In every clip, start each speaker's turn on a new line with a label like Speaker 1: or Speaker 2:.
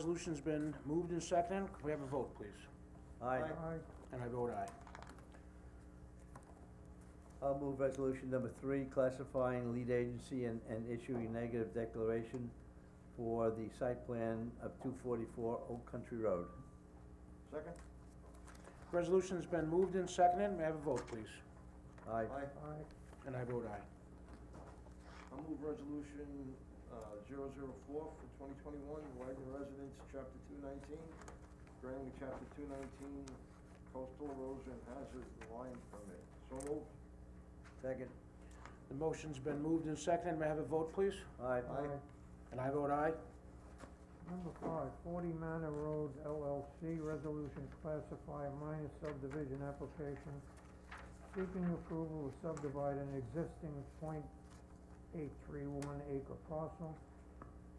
Speaker 1: Resolution's been moved and seconded. Can we have a vote, please?
Speaker 2: Aye.
Speaker 1: And I vote aye.
Speaker 2: I'll move resolution number three, classifying lead agency and, and issuing negative declaration for the site plan of two forty-four Oak Country Road.
Speaker 3: Second?
Speaker 1: Resolution's been moved and seconded. May I have a vote, please?
Speaker 2: Aye.
Speaker 1: And I vote aye.
Speaker 3: I'll move resolution, uh, zero zero four for twenty twenty-one, Wagner Residence, chapter two nineteen, granting chapter two nineteen coastal erosion hazard line permit. So moved.
Speaker 2: Second.
Speaker 1: The motion's been moved and seconded. May I have a vote, please?
Speaker 2: Aye.
Speaker 3: Aye.
Speaker 1: And I vote aye.
Speaker 4: Number five, Forty Manor Road LLC, resolution classify minor subdivision application, seeking approval to subdivide an existing point eight three one acre parcel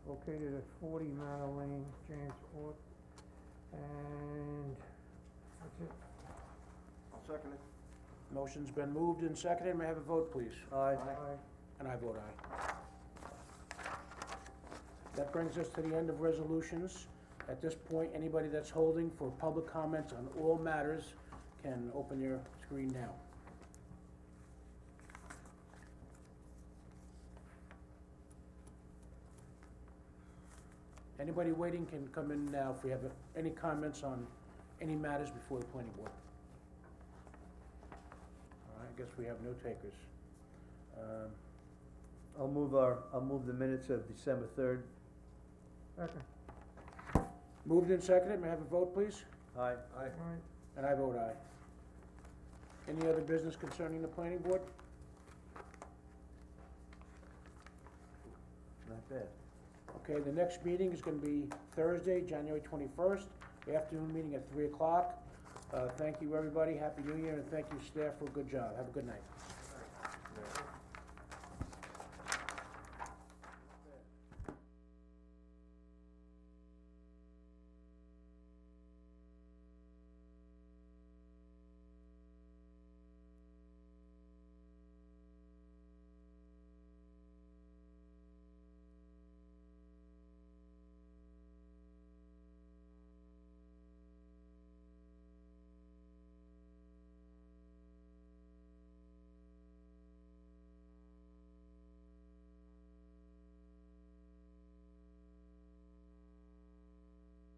Speaker 4: located at forty Manor Lane, Jamesport, and that's it.
Speaker 3: I'll second it.
Speaker 1: Motion's been moved and seconded. May I have a vote, please?
Speaker 2: Aye.
Speaker 4: Aye.
Speaker 1: And I vote aye. That brings us to the end of resolutions. At this point, anybody that's holding for public comments on all matters can open your screen now. Anybody waiting can come in now if we have any comments on any matters before the planning board. All right, I guess we have no takers. Um,
Speaker 2: I'll move our, I'll move the minutes of December third.
Speaker 4: Second,
Speaker 1: Moved and seconded, may I have a vote, please?
Speaker 2: Aye.
Speaker 3: Aye.
Speaker 4: aye.
Speaker 1: And I vote aye. Any other business concerning the planning board?
Speaker 2: Not bad.
Speaker 1: Okay, the next meeting is gonna be Thursday, January twenty-first, afternoon meeting at three o'clock. Uh, thank you, everybody, happy new year, and thank you, staff, for a good job, have a good night.